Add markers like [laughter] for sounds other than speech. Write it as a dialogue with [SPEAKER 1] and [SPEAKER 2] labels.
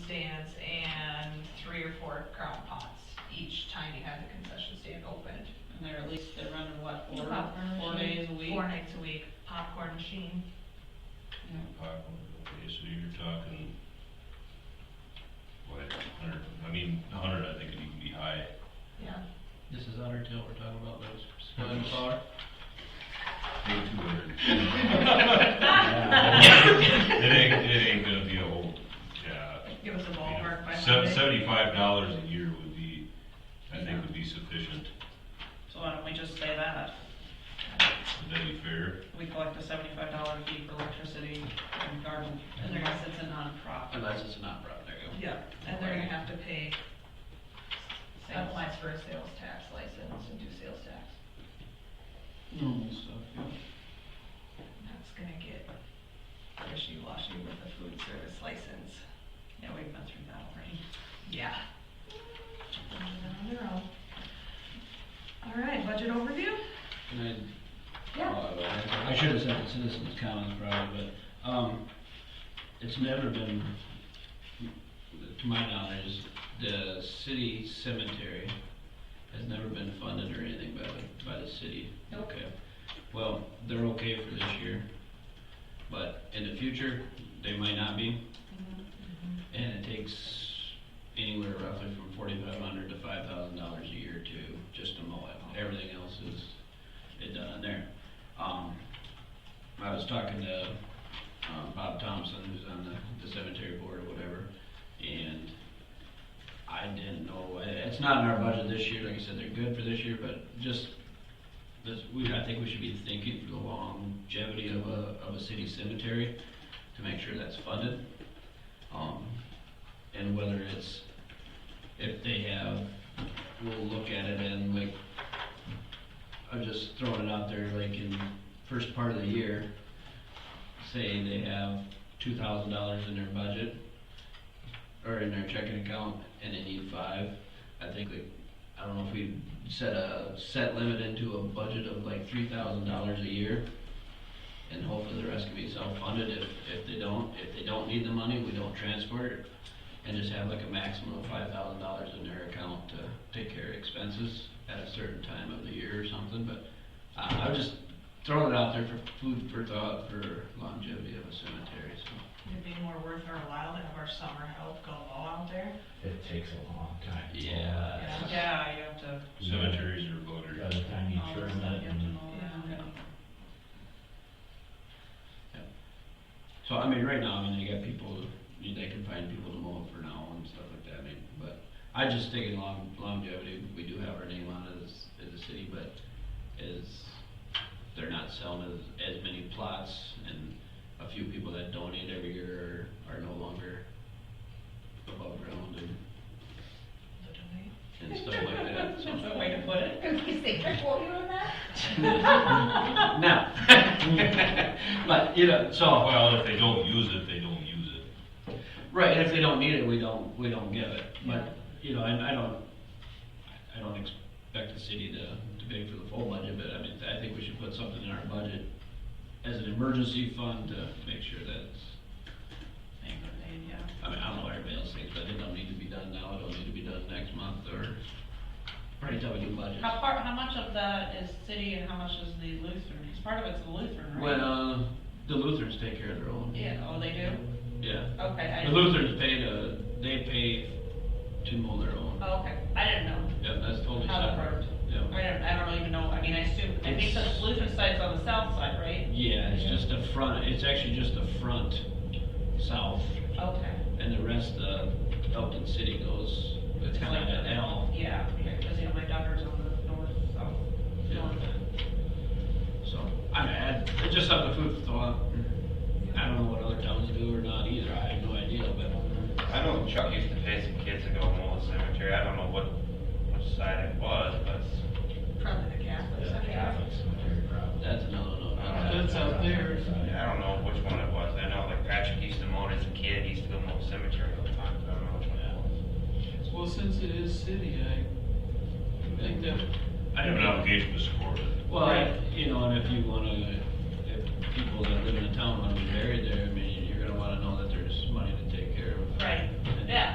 [SPEAKER 1] stands and three or four crown pots each time you had the concession stand opened.
[SPEAKER 2] And they're at least, they're running what,
[SPEAKER 1] The
[SPEAKER 2] four,
[SPEAKER 1] popcorn
[SPEAKER 2] four
[SPEAKER 1] machine,
[SPEAKER 2] days a week?
[SPEAKER 1] Four nights a week, popcorn machine.
[SPEAKER 2] Yeah.
[SPEAKER 3] Popcorn, okay, so you're talking, what, hundred, I mean, a hundred, I think it can be high.
[SPEAKER 1] Yeah.
[SPEAKER 4] This is Undertale we're talking about, those spelling power.
[SPEAKER 3] Maybe two hundred.
[SPEAKER 1] [laughs]
[SPEAKER 3] It ain't, it ain't gonna be a whole, yeah.
[SPEAKER 1] Give us a ballpark by
[SPEAKER 3] Sev-
[SPEAKER 1] Monday.
[SPEAKER 3] Seventy-five dollars a year would be, I think would be sufficient,
[SPEAKER 2] So why don't we just say that?
[SPEAKER 3] would that be fair?
[SPEAKER 2] We collect a seventy-five dollar fee for electricity and garden, and unless it's a nonprofit.
[SPEAKER 4] Unless it's not brought, there you
[SPEAKER 1] Yeah, and they're gonna have to pay, apply for a sales tax license and do sales tax.
[SPEAKER 4] go. Normal stuff, yeah.
[SPEAKER 1] That's gonna get wishy-washy with the food service license.
[SPEAKER 2] Yeah, we've been through that already.
[SPEAKER 1] Yeah. All right, budget overview?
[SPEAKER 4] And I Uh, I should have said the citizens' comments probably, but, um, it's never been, to my knowledge, the city cemetery has never been funded or anything by the, by the city.
[SPEAKER 1] Nope.
[SPEAKER 4] Okay. Well, they're okay for this year, but in the future, they might not be. And it takes anywhere roughly from forty-five hundred to five thousand dollars a year to just to mow it. Everything else is, it done there. Um, I was talking to, um, Bob Thompson, who's on the, the cemetery board or whatever, and I didn't know, it- it's not in our budget this year, like I said, they're good for this year, but just, this, we, I think we should be thinking for the longevity of a, of a city cemetery, to make sure that's funded. Um, and whether it's, if they have, we'll look at it and like, I'm just throwing it out there, like in first part of the year, say they have two thousand dollars in their budget or in their checking account and they need five, I think we, I don't know if we set a set limit into a budget of like three thousand dollars a year. And hopefully the rest can be self-funded if, if they don't, if they don't need the money, we don't transfer it. And just have like a maximum of five thousand dollars in their account to take care of expenses at a certain time of the year or something, but I, I'm just throwing it out there for food for thought for longevity of a cemetery, so.
[SPEAKER 1] It'd be more worth our while to have our summer help go all out there.
[SPEAKER 5] It takes a long time.
[SPEAKER 4] Yeah.
[SPEAKER 2] Yeah, you have to,
[SPEAKER 3] Cemeteries are voter.
[SPEAKER 5] By the time you
[SPEAKER 2] all the
[SPEAKER 5] turn
[SPEAKER 2] stuff
[SPEAKER 5] that
[SPEAKER 2] you have to
[SPEAKER 5] and
[SPEAKER 2] mow down.
[SPEAKER 1] Yeah.
[SPEAKER 4] So I mean, right now, I mean, they got people, you- they can find people to mow it for now and stuff like that, I mean, but I just think in long, longevity, we do have our name on it as, as a city, but is, they're not selling as, as many plots and a few people that donate every year are, are no longer above ground and, and stuff like that,
[SPEAKER 2] [laughs]
[SPEAKER 4] so.
[SPEAKER 2] That's a way to put it.
[SPEAKER 6] Cookies, they trick what you on that?
[SPEAKER 4] No. [laughs] But, you know, so.
[SPEAKER 3] Well, if they don't use it, they don't use it.
[SPEAKER 4] Right, and if they don't need it, we don't, we don't give it, but, you know, and I don't, I don't expect the city to, to pay for the full budget, but I mean, I think we should put something in our budget as an emergency fund to make sure that's,
[SPEAKER 2] Maybe they- yeah.
[SPEAKER 4] I mean, I don't know what everybody else thinks, but it don't need to be done now, it don't need to be done next month, or, right, until we do budget.
[SPEAKER 2] How far, how much of that is city and how much is the Lutheran? Because part of it's the Lutheran, right?
[SPEAKER 4] Well, um, uh, the Lutherans take care of their own.
[SPEAKER 2] Yeah, oh, they do?
[SPEAKER 4] Yeah.
[SPEAKER 2] Okay, I.
[SPEAKER 4] The Lutherans pay to, they pay to mow their own,
[SPEAKER 2] Oh, okay, I didn't know.
[SPEAKER 4] yeah, that's totally
[SPEAKER 2] How that
[SPEAKER 4] separate,
[SPEAKER 2] worked.
[SPEAKER 4] yeah.
[SPEAKER 2] I don't, I don't even know, I mean, I assume, I think the
[SPEAKER 4] It's-
[SPEAKER 2] Lutheran side's on the south side, right?
[SPEAKER 4] Yeah, it's just the front, it's actually just the front south,
[SPEAKER 2] Okay.
[SPEAKER 4] and the rest, uh, Elton City goes, it's kind of an L,
[SPEAKER 2] Yeah, because, you know, my daughter's on the north, south,
[SPEAKER 4] Yeah.
[SPEAKER 2] north end.
[SPEAKER 4] so, I mean, I- it's just something food for thought. I don't know what other towns do or not either, I have no idea, but,
[SPEAKER 7] I know Chuck used to pay some kids to go mow the cemetery, I don't know what, which side it was, but it's
[SPEAKER 1] Probably the Catholics,
[SPEAKER 5] the
[SPEAKER 1] I guess.
[SPEAKER 5] Catholic cemetery problem.
[SPEAKER 4] that's another, no,
[SPEAKER 7] That's
[SPEAKER 4] out there.
[SPEAKER 7] I don't know which one it was, I know like Patrick used to mow it as a kid, he used to go mow the cemetery all the time, but I don't know which one it was.
[SPEAKER 8] Well, since it is city, I think that
[SPEAKER 4] I
[SPEAKER 3] I have
[SPEAKER 4] don't
[SPEAKER 3] an
[SPEAKER 4] know.
[SPEAKER 3] obligation to support it.
[SPEAKER 4] Well, you know, and if you wanna, if people that live in the town wanna be buried there, I mean,